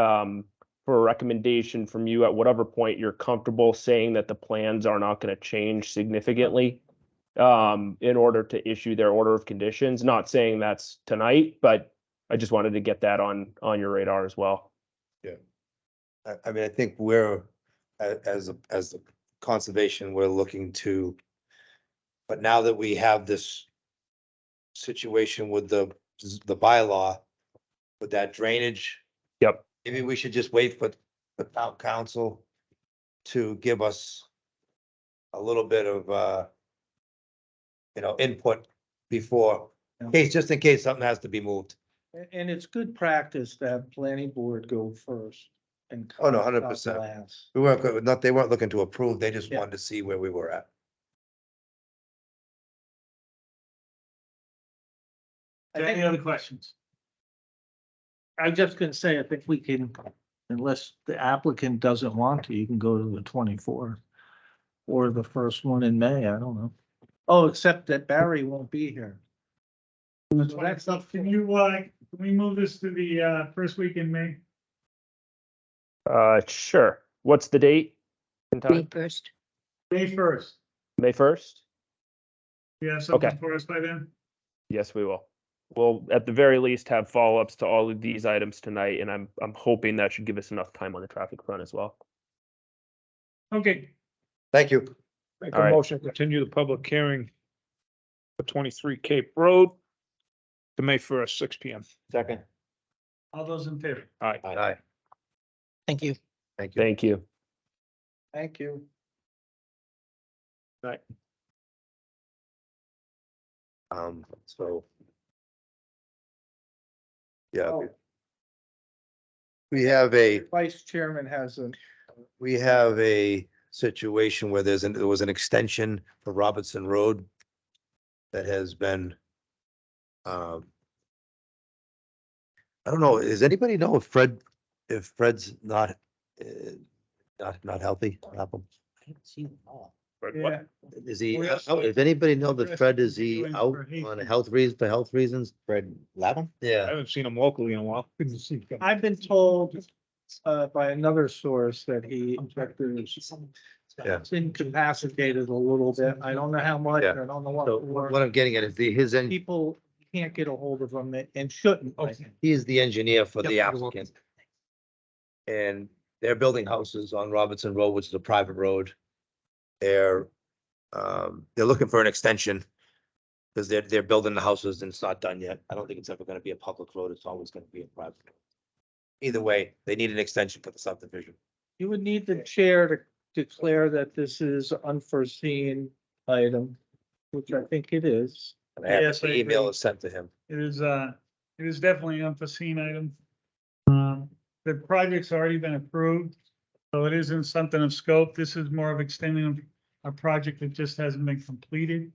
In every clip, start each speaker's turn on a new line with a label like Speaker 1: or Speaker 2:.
Speaker 1: um, for a recommendation from you at whatever point you're comfortable saying that the plans are not going to change significantly um, in order to issue their order of conditions. Not saying that's tonight, but I just wanted to get that on, on your radar as well.
Speaker 2: I, I mean, I think we're, a- as, a- as the conservation, we're looking to, but now that we have this situation with the, the bylaw, with that drainage.
Speaker 1: Yep.
Speaker 2: Maybe we should just wait for the town council to give us a little bit of, uh, you know, input before, in case, just in case something has to be moved.
Speaker 3: A- And it's good practice to have planning board go first and.
Speaker 2: Oh, no,
Speaker 3: Concom
Speaker 2: 100%.
Speaker 3: last.
Speaker 2: We weren't, go- not, they weren't looking to approve, they just
Speaker 3: Yeah.
Speaker 2: wanted to see where we were at.
Speaker 3: I think-
Speaker 4: Any other questions?
Speaker 3: I'm just gonna say, I think we can, unless the applicant doesn't want to, you can go to the twenty-fourth. Or the first one in May, I don't know. Oh, except that Barry won't be here. So That's up to
Speaker 4: Can
Speaker 3: you.
Speaker 4: you, uh, can we move this to the, uh, first week in May?
Speaker 1: Uh, sure. What's the date? and time?
Speaker 5: May first.
Speaker 4: May first.
Speaker 1: May first?
Speaker 4: You have
Speaker 1: Okay.
Speaker 4: something for us by then?
Speaker 1: Yes, we will. We'll at the very least have follow-ups to all of these items tonight, and I'm, I'm hoping that should give us enough time on the traffic front as well.
Speaker 4: Okay,
Speaker 2: Thank you.
Speaker 6: Make
Speaker 1: All
Speaker 6: a
Speaker 1: right.
Speaker 6: motion, to continue the public hearing for twenty-three Cape Road to May first, six P M.
Speaker 2: Second.
Speaker 4: all those in favor?
Speaker 6: All right.
Speaker 2: Aye.
Speaker 3: Thank you.
Speaker 2: Thank you.
Speaker 1: Thank you.
Speaker 3: Thank you.
Speaker 2: Um, so. Yeah.
Speaker 3: Oh.
Speaker 2: we- We have a,
Speaker 3: Vice Chairman has an,
Speaker 2: we have a situation where there's, an there was an extension for Robertson Road that has been, um, I don't know, does anybody know if Fred, if Fred's not, uh, not, not healthy? Malcolm?
Speaker 4: Yeah,
Speaker 2: Is he,
Speaker 4: Well, yes.
Speaker 2: oh, does anybody know that
Speaker 4: Yes,
Speaker 2: Fred, is he
Speaker 4: doing
Speaker 2: out
Speaker 4: for heat.
Speaker 2: on health reasons, for health reasons? Fred Latham?
Speaker 6: I
Speaker 2: Yeah,
Speaker 6: haven't seen him locally in a while.
Speaker 3: I've been told uh by another source that he is
Speaker 2: Yeah.
Speaker 3: incapacitated a little bit. I don't know how much, I
Speaker 2: Yeah.
Speaker 3: don't know
Speaker 2: so
Speaker 3: what. for.
Speaker 2: what what I'm getting at is the, his, en-
Speaker 3: people can't get a hold of them and shouldn't. I think.
Speaker 2: he is the engineer for Oh, the
Speaker 3: Yep, you're welcome.
Speaker 2: applicant. And they're building houses on Robertson Road, which is a private road. They're, um, they're looking for an extension. Cause they're, they're building the houses and it's not done yet. I don't think it's ever gonna be a public road. It's always gonna be a private. road. Either way, they need an extension for the subdivision.
Speaker 3: You would need the chair to declare that this is unforeseen item, which I think it is.
Speaker 2: And I have
Speaker 4: Yes, I
Speaker 2: the email
Speaker 4: agree.
Speaker 2: is sent to him.
Speaker 4: it is, uh, it is definitely an unforeseen item. Um, the project's already been approved, so it isn't something of scope. This is more of extending a project that just hasn't been completed.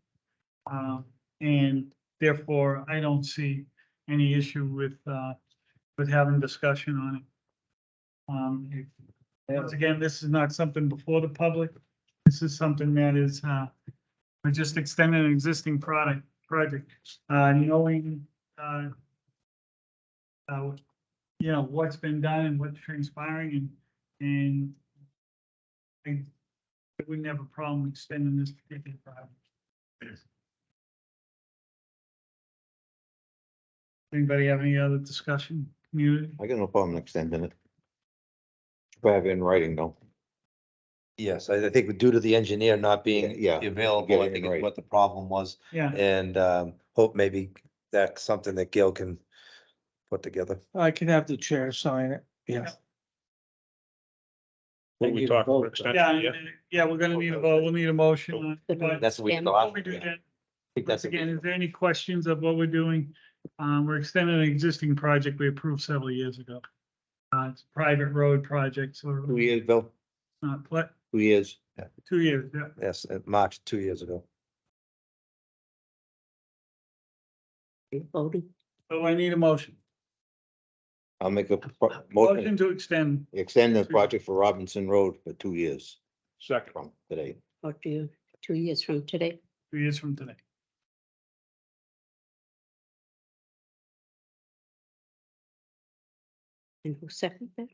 Speaker 4: Um, and therefore, I don't see any issue with, uh, with having discussion on it. Um, if- once again, this is not something before the public. This is something that is, uh, we're just extending an existing product, project. Uh, knowing, uh, uh, you know, what's been done and what's transpiring and, and I I wouldn't have a problem extending this particular project. Anybody have any other discussion, community?
Speaker 7: I got no problem extending it. If I have it in writing though,
Speaker 2: Yes, I, I think due to the engineer not being
Speaker 7: Yeah, yeah, get
Speaker 2: available,
Speaker 7: it
Speaker 2: I
Speaker 7: in
Speaker 2: think is
Speaker 7: writing.
Speaker 2: what the problem was.
Speaker 4: Yeah,
Speaker 2: And um, hope maybe that's something that Gail can put together.
Speaker 3: I can have the chair sign it, yes.
Speaker 6: What we talked about extension,
Speaker 4: yeah, and- yeah, we're gonna need a vote, we'll need a motion. on it, but
Speaker 2: That's what we
Speaker 5: And
Speaker 2: thought.
Speaker 4: Before we do that,
Speaker 2: I think
Speaker 4: Once
Speaker 2: that's-
Speaker 4: again, is there any questions of what we're doing? Um, we're extending an existing project we approved several years ago. Uh, it's a private road project, so
Speaker 2: Two years, Bill?
Speaker 4: not, pla-
Speaker 2: Two years.
Speaker 4: two years, yeah.
Speaker 2: Yes, uh, March, two years ago.
Speaker 5: Voting.
Speaker 4: So I need a motion.
Speaker 7: I'll make a pro-
Speaker 4: Motion
Speaker 7: motion,
Speaker 4: to extend.
Speaker 7: extend the project for Robinson Road for two years
Speaker 6: Second.
Speaker 7: from today.
Speaker 5: Or two, two years from today.
Speaker 4: two years from today.
Speaker 5: And who seconded that?